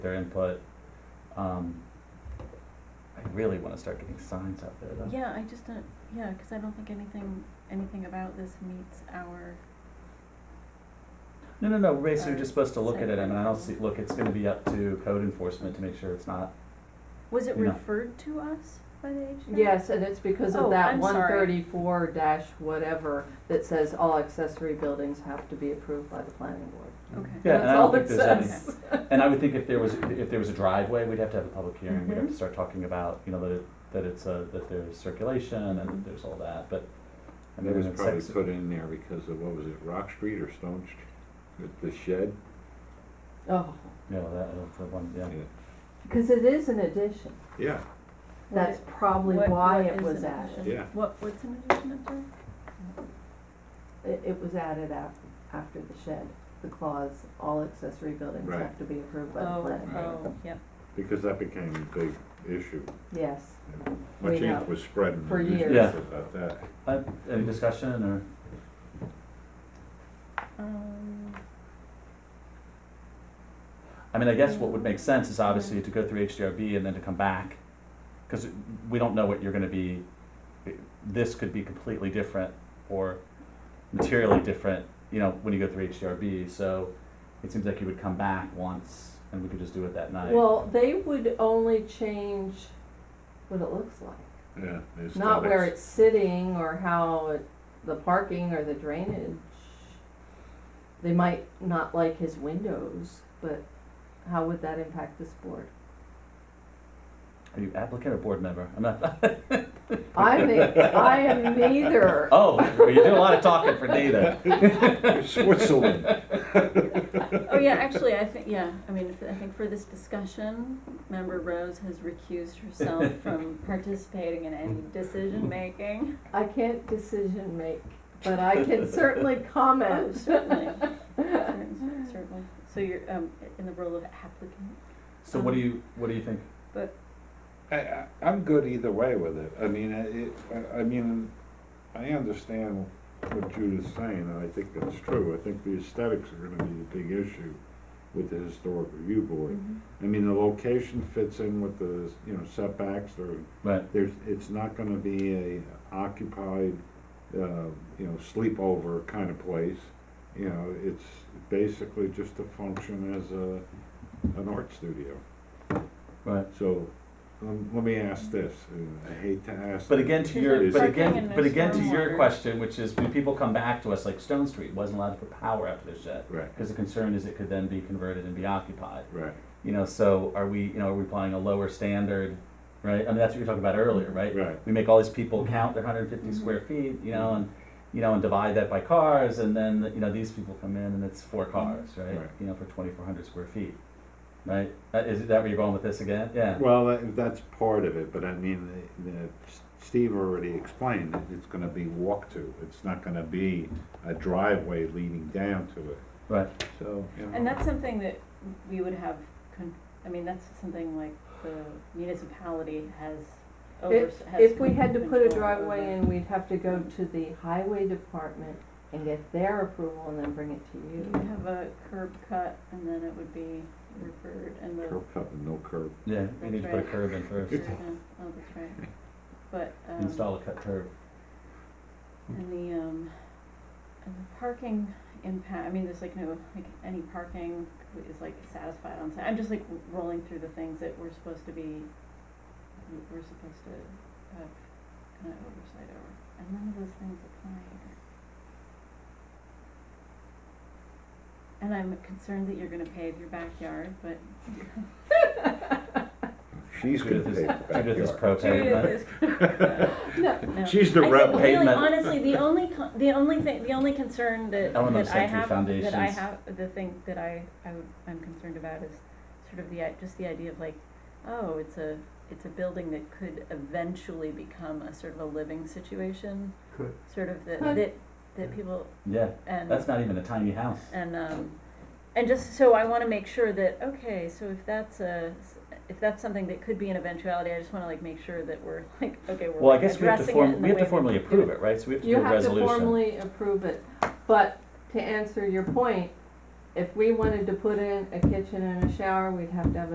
their input. Um, I really want to start getting signs out there though. Yeah, I just don't, yeah, because I don't think anything, anything about this meets our, No, no, no, basically, Or you're just supposed to look at it, I mean, I don't see, site look, it's gonna be up to code enforcement to make sure it's not, was it Yeah. referred to us by the HDA? Yes, and it's because Oh, of that I'm one sorry. thirty-four dash whatever that says all accessory buildings have to be approved by the planning board. Okay. Yeah, and I That's don't all think it there's any- says. and I would think if there was, if there was a driveway, we'd have to have a public hearing, we'd have to Mhm. start talking about, you know, that it, that it's a, that there's circulation and Mhm. that there's all that, but. I And mean, it was it's probably sex- put in there because of, what was it, Rock Street or Stone Street, the the shed? Oh, Yeah, that, that's the one, yeah, because it is an addition. Yeah, What- That's probably what- why what it is was an added. addition? Yeah. What, what's an addition up there? It, it was added af- after the shed, the clause, all accessory buildings Right. have to be approved by the Oh, planning. board." oh, yep, because that became a big issue. Yes, We Much know. ink was spread in the For years. newspapers about that. Uh, any discussion, or, um, I mean, I guess what would make sense is obviously to go through HDRB and then to come back, cause we don't know what you're gonna be, this could be completely different or materially different, you know, when you go through HDRB, so it seems like you would come back once and we could just do it that night. well, they would only change what it looks like. Yeah. the Not where aesthetics. it's sitting or how it, the parking or the drainage. They might not like his windows, but how would that impact this board? Are you applicant or board member? I'm not, I'm, a- I am neither. oh, well, you do a lot of talking for neither. Switzerland. oh, yeah, actually, I think, yeah, I mean, I think for this discussion, member Rose has recused herself from participating in any decision-making. I can't decision make, but I can certainly Oh, comment. certainly, Certain- certainly. So you're, um, in the role of applicant? So what do you, what do you think? I, I, I'm good either way with it. I mean, I- it, I, I mean, I understand what Judith's saying, and I think that's true. I think the aesthetics are gonna be the big issue with the historic review board. Mm-hmm. I mean, the location fits in with the, you know, setbacks or Right, there's, it's not gonna be a occupied, uh, you know, sleepover kind of place. You know, it's basically just to function as a, an art studio. right. So, um, let me ask this, and I hate to ask. But again, to your, Is but it- Parking again, and but no again, to your stormwater. question, which is when people come back to us, like Stone Street wasn't allowed to put power after the shed. Right, Because the concern is it could then be converted and be occupied. right, You know, so are we, you know, are we applying a lower standard, right? I mean, that's what you were talking about earlier, right? right, We make all these people Mm-hmm. count their hundred and fifty square feet, you know, and, you know, and divide that by cars, and then, you know, these people come in and it's Mm-hmm. four cars, right? Right. You know, for twenty-four hundred square feet, right? That- Is that where you're going with this again? Yeah. well, that- that's part of it, but I mean, the, the, Steve already explained, that it's gonna be walk to, it's not gonna be a driveway leading down to it. Right. So, you know. And that's something that we would have, con- I mean, that's something like the municipality has over, If, has. if we had to put a control driveway over. in, we'd have to go to the highway department and get their approval and then bring it to You you. would have a curb cut and then it would be referred and the. Curb cut and no curb. Yeah, we need to put a curb in Oh, first, that's right. But, um. install a cut curb. And the, um, and the parking impact, I mean, there's like no, like any parking is like satisfied on site. I'm just like rolling through the things that we're supposed to be, we're supposed to have kind of oversight over. And none of those things apply here. And I'm concerned that you're gonna pave your backyard, but She's gonna Judith take is- the Judith is backyard. pro pavement. Judith is. No, No. She's the I think rebel. Really, Pavement. honestly, the only, con- the only thing, the only concern that, Element of that I century have, that I foundations. have, the thing that I, I would, I'm concerned about is sort of the, i- just the idea of like, oh, it's a, it's a building that could eventually become a sort of a living situation. Could. Sort of that, Could. that, that people, Yeah, and. that's not even a tiny house. And, um, and just, so I wanna make sure that, okay, so if that's a, if that's something that could be an eventuality, I just wanna like make sure that we're like, okay, Well, we're I guess we have to addressing it form, in the we have way to that formally do approve it. it, right? So we have to do You a have to resolution. formally approve it, but to answer your point, if we wanted to put in a kitchen and a shower, we'd have to have a